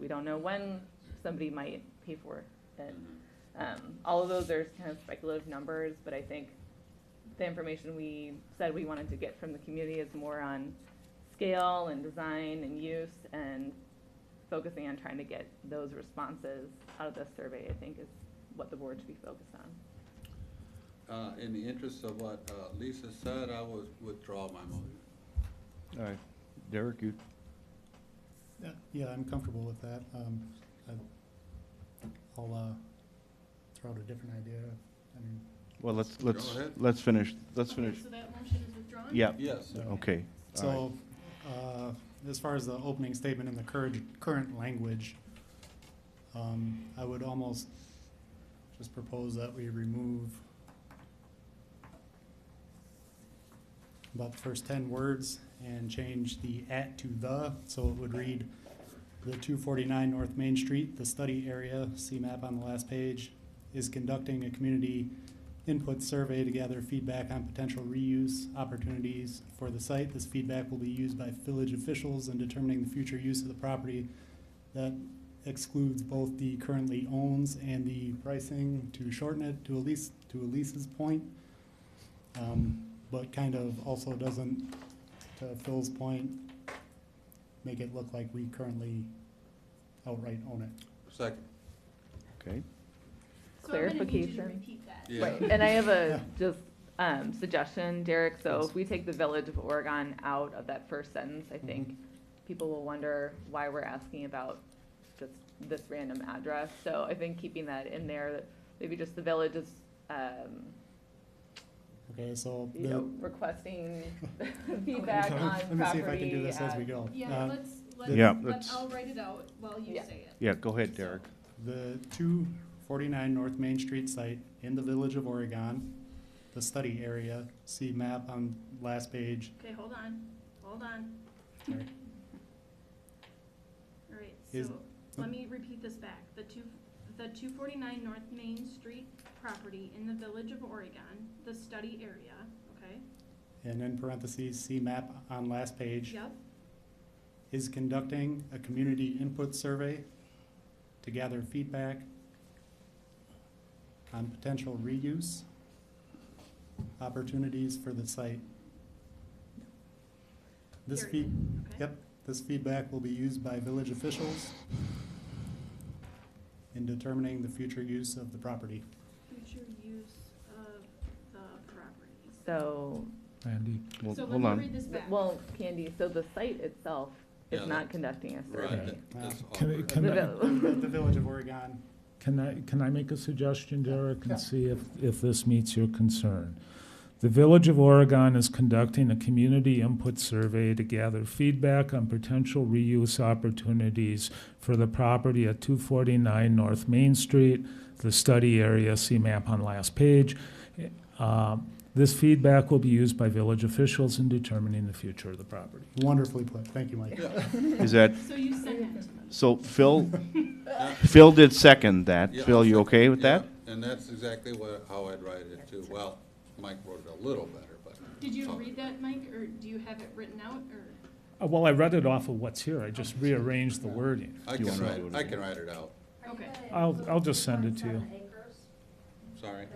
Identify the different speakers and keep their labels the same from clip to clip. Speaker 1: We don't know when somebody might pay for it.
Speaker 2: Mm-hmm.
Speaker 1: Um, all of those are kind of speculative numbers, but I think the information we said we wanted to get from the community is more on scale and design and use and focusing on trying to get those responses out of the survey, I think is what the board should be focused on.
Speaker 2: Uh, in the interest of what, uh, Lisa said, I would withdraw my motion.
Speaker 3: All right, Derek, you,
Speaker 4: Yeah, yeah, I'm comfortable with that. Um, I- I'll, uh, throw out a different idea. I mean,
Speaker 3: well, let's,
Speaker 2: Go
Speaker 3: let's,
Speaker 2: ahead.
Speaker 3: let's finish, let's
Speaker 5: Okay,
Speaker 3: finish.
Speaker 5: So that motion is withdrawn?
Speaker 3: Yeah,
Speaker 2: Yes,
Speaker 4: Yeah.
Speaker 3: okay, all
Speaker 4: so, uh, as far as the opening statement in the current, current language, um, I would almost just propose that we remove about the first ten words and change the at to the, so it would read the two forty-nine North Main Street, the study area, see map on the last page, is conducting a community input survey to gather feedback on potential reuse opportunities for the site. This feedback will be used by village officials in determining the future use of the property. That excludes both the currently owns and the pricing to shorten it to Elise, to Elise's point. Um, but kind of also doesn't, to Phil's point, make it look like we currently outright own it.
Speaker 2: second,
Speaker 3: okay.
Speaker 5: So I'm gonna need you to
Speaker 1: Clarification.
Speaker 5: repeat that.
Speaker 2: Yeah.
Speaker 1: Right, and I have a
Speaker 4: Yeah.
Speaker 1: just um, suggestion, Derek, so if
Speaker 4: Please.
Speaker 1: we take the Village of Oregon out of that first sentence, I think
Speaker 4: Mm-hmm.
Speaker 1: people will wonder why we're asking about just this random address, so I think keeping that in there, that maybe just the village is, um,
Speaker 4: Okay, so.
Speaker 1: you
Speaker 4: the-
Speaker 1: know, requesting feedback on
Speaker 4: Let
Speaker 1: property.
Speaker 4: me see if I can do this as
Speaker 1: at-
Speaker 4: we go.
Speaker 5: Yeah,
Speaker 4: Uh,
Speaker 5: let's, let's,
Speaker 3: Yeah,
Speaker 5: let-
Speaker 3: let's-
Speaker 5: I'll write it out while you
Speaker 1: Yeah.
Speaker 5: say it.
Speaker 3: Yeah, go ahead, Derek.
Speaker 4: The two forty-nine North Main Street site in the village of Oregon, the study area, see map on last page.
Speaker 5: Okay, hold on, hold on.
Speaker 4: Sorry.
Speaker 5: All right,
Speaker 4: Is-
Speaker 5: so let me repeat this back. The two, the two forty-nine North Main Street property in the village of Oregon, the study area, okay?
Speaker 4: And in parentheses, see map on last page,
Speaker 5: Yep,
Speaker 4: is conducting a community input survey to gather feedback on potential reuse opportunities for the site. This feed,
Speaker 5: period, okay?
Speaker 4: Yep, this feedback will be used by village officials in determining the future use of the property.
Speaker 5: Future use of the properties.
Speaker 1: So,
Speaker 6: Andy.
Speaker 3: Well,
Speaker 5: So let
Speaker 3: hold
Speaker 5: me
Speaker 3: on.
Speaker 5: read this back.
Speaker 1: well, Candy, so the site itself
Speaker 2: Yeah,
Speaker 1: is not
Speaker 2: that-
Speaker 1: conducting a
Speaker 2: right,
Speaker 1: survey.
Speaker 2: that- that's
Speaker 6: Can we-
Speaker 2: awkward.
Speaker 6: can
Speaker 1: The
Speaker 6: I-
Speaker 1: vill-
Speaker 4: The the Village of Oregon,
Speaker 6: Can I, can I make a suggestion, Derek,
Speaker 4: Yeah.
Speaker 6: and see if, if this meets your concern? The Village of Oregon is conducting a community input survey to gather feedback on potential reuse opportunities for the property at two forty-nine North Main Street, the study area, see map on last page. Uh, This feedback will be used by village officials in determining the future of the property.
Speaker 4: wonderfully put, thank you, Mike.
Speaker 2: Yeah,
Speaker 3: Is that,
Speaker 5: So you send that to me.
Speaker 3: so Phil, Phil did second that.
Speaker 2: yeah,
Speaker 3: Phil, you
Speaker 2: I'll
Speaker 3: okay with
Speaker 2: yeah,
Speaker 3: that?
Speaker 2: And that's exactly what, how I'd write it too. Well, Mike wrote it a little better, but.
Speaker 5: Did you
Speaker 2: Sorry.
Speaker 5: read that, Mike, or do you have it written out, or?
Speaker 6: Uh, Well, I read it off of what's here, I
Speaker 4: Oh,
Speaker 6: just rearranged the wording.
Speaker 2: I
Speaker 3: You
Speaker 2: can
Speaker 3: wanna
Speaker 2: write,
Speaker 3: do it
Speaker 2: I
Speaker 3: again?
Speaker 2: can write it out,
Speaker 5: Okay.
Speaker 6: I'll, I'll just send it to you.
Speaker 2: sorry.
Speaker 5: Uh,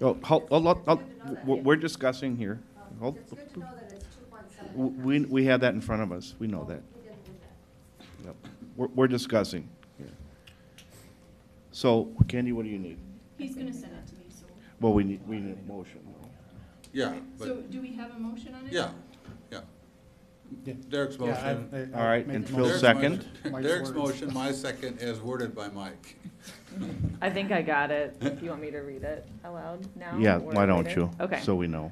Speaker 3: Oh, hold, hold, hold- hold- we're we're discussing here. Hold-
Speaker 7: It's good to know that it's two point seven.
Speaker 3: w- We, we have that in front of us, we know that.
Speaker 7: We didn't do that.
Speaker 3: Yep. We're, we're discussing here. So, Candy, what do you need?
Speaker 5: He's gonna send it to me, so.
Speaker 3: Well, we need, we need a motion.
Speaker 2: Yeah,
Speaker 5: So
Speaker 2: but,
Speaker 5: do we have a motion on it?
Speaker 2: yeah, yeah.
Speaker 4: Yeah.
Speaker 2: Derek's motion.
Speaker 3: All right, and Phil
Speaker 2: Derek's
Speaker 3: second?
Speaker 2: motion-
Speaker 4: Mike's
Speaker 2: Derek's
Speaker 4: words.
Speaker 2: motion, my second, as worded by Mike.
Speaker 1: I think I got it. Do you want me to read it aloud now?
Speaker 3: Yeah,
Speaker 1: or
Speaker 3: why don't
Speaker 1: later?
Speaker 3: you?
Speaker 1: Okay.
Speaker 3: So we know.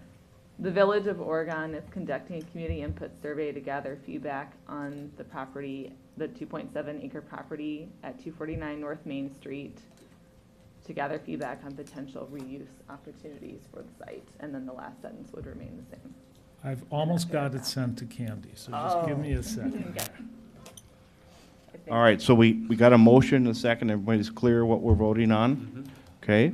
Speaker 1: The Village of Oregon is conducting a community input survey to gather feedback on the property, the 2.7 acre property at 249 North Main Street, to gather feedback on potential reuse opportunities for the site. And then the last sentence would remain the same.
Speaker 6: I've almost got it sent to Candy, so just give me a second.
Speaker 1: I think-
Speaker 3: All right, so we, we got a motion and a second. Everybody's clear what we're voting on? Okay?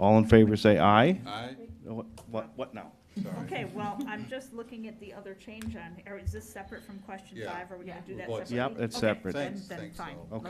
Speaker 3: All in favor, say aye.
Speaker 2: Aye,
Speaker 3: What, what- what now?
Speaker 2: sorry.
Speaker 8: Okay, well, I'm just looking at the other change on, or is this separate from question
Speaker 2: Yeah.
Speaker 8: five? Are we gonna do that
Speaker 2: Well, it's-
Speaker 8: separately?
Speaker 3: Yep, it's
Speaker 8: Okay,
Speaker 3: separate.
Speaker 8: then-
Speaker 2: Thanks,
Speaker 8: Then
Speaker 2: thanks,
Speaker 8: fine.
Speaker 2: Al.
Speaker 8: Let's